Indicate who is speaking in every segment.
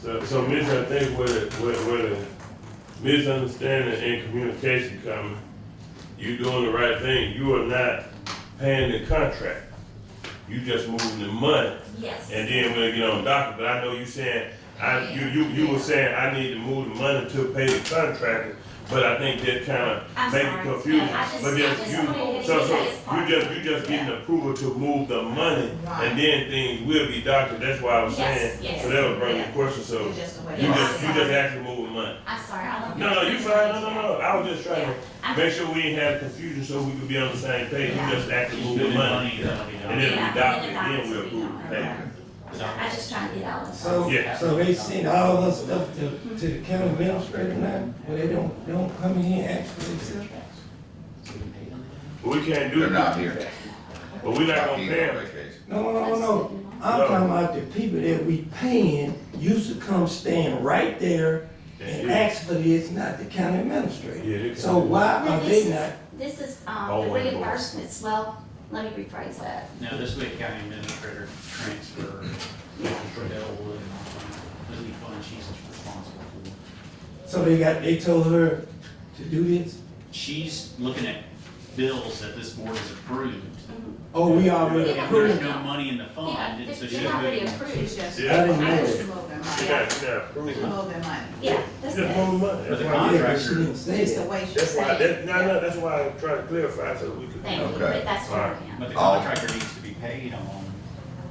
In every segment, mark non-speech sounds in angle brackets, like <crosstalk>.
Speaker 1: So, so Mitch, I think where, the- where, where the misunderstanding and communication coming, you doing the right thing, you are not paying the contract. You just moving the money,
Speaker 2: Yes.
Speaker 1: and then we'll get on docket, but I know you saying, I, you, you, you were saying, I need to move the money to pay the contractor, but I think that kinda
Speaker 2: I'm
Speaker 1: make
Speaker 2: sorry.
Speaker 1: it confusing.
Speaker 2: Yeah, I just-
Speaker 1: But
Speaker 2: I
Speaker 1: yes,
Speaker 2: just
Speaker 1: you,
Speaker 2: wanted to
Speaker 1: so,
Speaker 2: get
Speaker 1: so,
Speaker 2: that as
Speaker 1: you
Speaker 2: part.
Speaker 1: just, you just getting approval to move the money,
Speaker 3: Right.
Speaker 1: and then things will be doctored, that's why I was
Speaker 2: Yes,
Speaker 1: saying,
Speaker 2: yes.
Speaker 1: so that was bringing
Speaker 3: Yeah.
Speaker 1: a question, so.
Speaker 3: It's just a way.
Speaker 1: You
Speaker 2: Yeah.
Speaker 1: just, you just actually moving money.
Speaker 2: I'm sorry, I don't.
Speaker 1: No, no, you fine, no, no, no, I was just trying
Speaker 2: Yeah.
Speaker 1: to
Speaker 2: I'm-
Speaker 1: make sure we didn't have confusion so we could be on the same page, you just actually moving
Speaker 4: Spending
Speaker 1: money.
Speaker 4: money, you know, you know.
Speaker 1: And then
Speaker 2: Yeah,
Speaker 1: we adopt it,
Speaker 2: and
Speaker 1: then
Speaker 2: then
Speaker 1: we
Speaker 2: adopt it.
Speaker 1: approve the payment.
Speaker 2: I'm just trying to get all of
Speaker 5: So,
Speaker 2: them.
Speaker 1: Yeah.
Speaker 5: so they send all that stuff to, to the county administrator now, but they don't, they don't come in here and ask for themselves?
Speaker 1: But We can't do
Speaker 6: They're
Speaker 1: it,
Speaker 6: not here.
Speaker 1: but we not gonna
Speaker 6: He's
Speaker 1: pay
Speaker 6: on
Speaker 1: them.
Speaker 6: vacation.
Speaker 5: No, no, no, no, I'm talking about the people that we paying used to come stand right there and ask for this, not the county
Speaker 1: Yeah, they
Speaker 5: administrator.
Speaker 1: can.
Speaker 5: So why
Speaker 2: Now,
Speaker 5: are
Speaker 2: this
Speaker 5: they
Speaker 2: is-
Speaker 5: not,
Speaker 2: This is, um,
Speaker 1: All
Speaker 2: the
Speaker 1: one voice.
Speaker 2: reimbursements, well, let me rephrase that.
Speaker 4: Now, this week county administrator transfer, for Elwood, this week fund she's responsible for.
Speaker 5: so they got, they told her to do this?
Speaker 4: She's looking at bills that this board has approved.
Speaker 5: Oh, we already
Speaker 4: And there's
Speaker 5: approved,
Speaker 4: no money in the
Speaker 2: Yeah,
Speaker 4: fund, and so
Speaker 2: this
Speaker 4: she's
Speaker 2: is already
Speaker 4: looking.
Speaker 2: approved.
Speaker 3: It's just,
Speaker 1: Yeah.
Speaker 5: I didn't know
Speaker 3: it's
Speaker 5: it.
Speaker 3: just moving
Speaker 1: You
Speaker 3: money,
Speaker 1: got, you got
Speaker 3: It's
Speaker 1: approval.
Speaker 3: moving money.
Speaker 2: Yeah, that's
Speaker 1: Just
Speaker 2: it.
Speaker 1: moving money.
Speaker 4: But
Speaker 1: That's
Speaker 4: the
Speaker 1: why-
Speaker 5: Yeah, but she
Speaker 4: contractor,
Speaker 5: didn't say
Speaker 3: It's the
Speaker 5: that.
Speaker 3: way she
Speaker 1: That's why,
Speaker 3: said it.
Speaker 1: that, no, no, that's why I tried to clarify so we could.
Speaker 2: Thank you,
Speaker 6: Okay.
Speaker 2: but that's where I am.
Speaker 4: but the
Speaker 6: Oh.
Speaker 4: contractor needs to be paid on,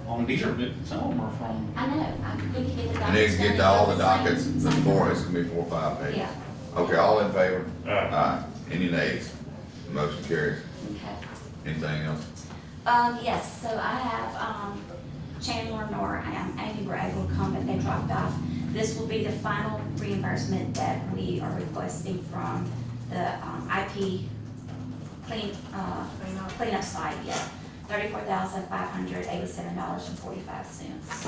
Speaker 4: on these are, some of them are from,
Speaker 2: I know, I, we can get the dockets.
Speaker 6: And they can
Speaker 2: done
Speaker 6: get to all the
Speaker 2: same-
Speaker 6: dockets
Speaker 2: same-
Speaker 6: before, it's gonna be four, or five pages.
Speaker 2: Yeah,
Speaker 6: Okay, all in favor?
Speaker 1: Alright,
Speaker 6: Aye. Any nays? Motion carries.
Speaker 2: okay.
Speaker 6: Anything else?
Speaker 2: Um, yes, so I have, um, Chandler Nor um, and Amy were able to come, but they dropped off. This will be the final reimbursement that we are requesting from the, um, IP clean, uh, cleanup site, yeah. Thirty-four thousand five hundred eighty-seven dollars and forty-five cents.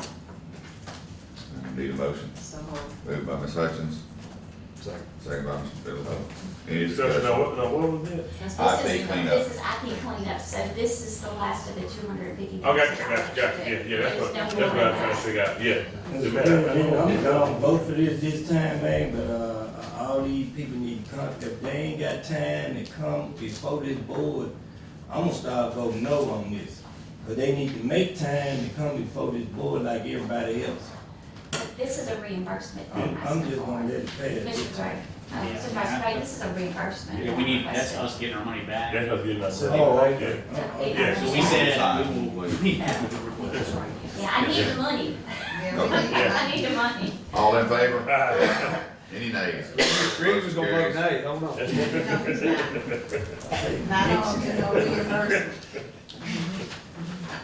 Speaker 6: Need a motion?
Speaker 3: So moved.
Speaker 6: Moved by Ms. Hutchins. Second. Second by Mr. Bittler. Any
Speaker 1: so now,
Speaker 6: discussion?
Speaker 1: what, now what was it?
Speaker 6: IP
Speaker 2: This is-
Speaker 6: cleanup.
Speaker 2: This is IP cleanup, so this is the last of the two hundred and fifty.
Speaker 1: I got you, got you, got you, yeah, yeah, that's what, that's what I was trying to figure out, yeah.
Speaker 5: That's good, man. I'm gonna vote for this this time, man, but, uh, all these people need to come, if they ain't got time to come before this board, I'm gonna start voting no on this. But they need to make time to come before this board like everybody else.
Speaker 2: This is a reimbursement.
Speaker 5: I'm, I'm just gonna let it pass this
Speaker 2: Commissioner
Speaker 5: time.
Speaker 2: Gray, uh, Supervisor Gray, this is a reimbursement.
Speaker 4: we need, that's us getting our money back.
Speaker 1: That's us getting us.
Speaker 5: Oh, right.
Speaker 1: Yeah.
Speaker 5: Uh,
Speaker 1: Yeah,
Speaker 4: So we said, we will, we have the request.
Speaker 2: Yeah, I need the money. <laughs>
Speaker 3: Yeah, we
Speaker 6: Okay.
Speaker 3: need money.
Speaker 2: I need the money.
Speaker 6: All in favor?
Speaker 1: <laughs> Ah,
Speaker 6: Any nays?
Speaker 7: Green was gonna vote
Speaker 6: Motion carries.
Speaker 7: nay, hold on.
Speaker 3: No, he's not. Not on, you know, reimbursement.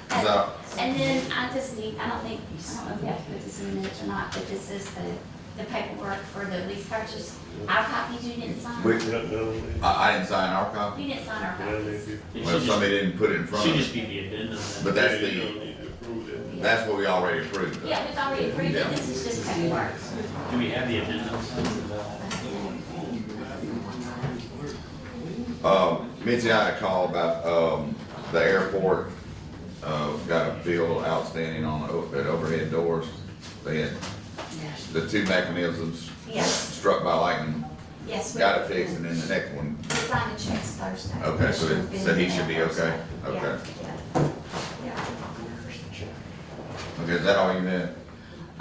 Speaker 6: Is that-
Speaker 2: And then uh, I just need, I don't think, I don't know if we have to put this in the minutes or not, but this is the, the paperwork for the lease purchase. Our copies you didn't
Speaker 6: We,
Speaker 2: sign.
Speaker 1: no, no, no.
Speaker 6: I, I didn't sign our copy.
Speaker 2: You didn't sign our copies.
Speaker 4: It
Speaker 6: Well,
Speaker 4: should
Speaker 6: somebody didn't put it in
Speaker 4: just,
Speaker 6: front
Speaker 4: should
Speaker 6: of us.
Speaker 4: just be the addendum.
Speaker 6: But
Speaker 1: Yeah,
Speaker 6: that's
Speaker 1: you
Speaker 6: the,
Speaker 1: don't need to approve that.
Speaker 2: Yeah.
Speaker 6: that's what we already approved of.
Speaker 2: Yeah, it's already approved,
Speaker 6: Yeah.
Speaker 2: but this is just paperwork.
Speaker 4: Do we have the addendums?
Speaker 6: Um, Mitzi, I had a call about, um, the airport, uh, got a bill outstanding on the, o- at overhead doors. They had the two mechanisms
Speaker 2: Yes,
Speaker 6: struck by lightning,
Speaker 2: yes. we-
Speaker 6: got it fixed, and then the next one,
Speaker 2: We signed the checks Thursday.
Speaker 6: Okay, so it- so he should be okay?
Speaker 2: Yeah,
Speaker 6: Okay.
Speaker 2: yeah, yeah.
Speaker 6: okay, is that all you had?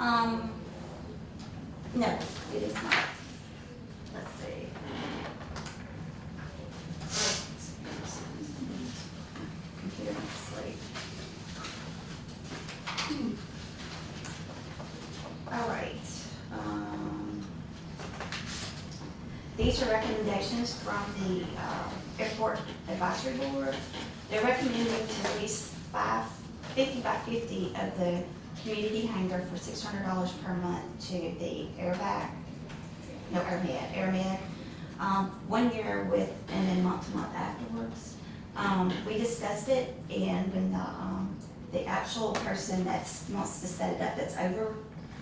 Speaker 2: Um, no, it is not. Let's see. Computer went to sleep. Hmm. All right, um, these are recommendations from the, uh, Airport Advisory Board. They're recommending to lease five, fifty by fifty of the community hangar for six hundred dollars per month to the airback, no, airmed, airmed, um, one year with, and then month to month afterwards. Um, we discussed it, and when the, um, the actual person that's, wants to set it up, that's over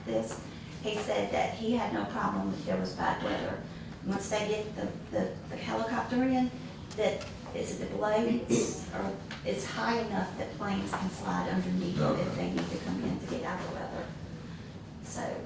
Speaker 2: this, he said that he had no problem if there was bad weather. Once they get the, the, the helicopter in, that, is it the blades, or it's high enough that planes can slide underneath it if they need to come in to get out of the weather. So,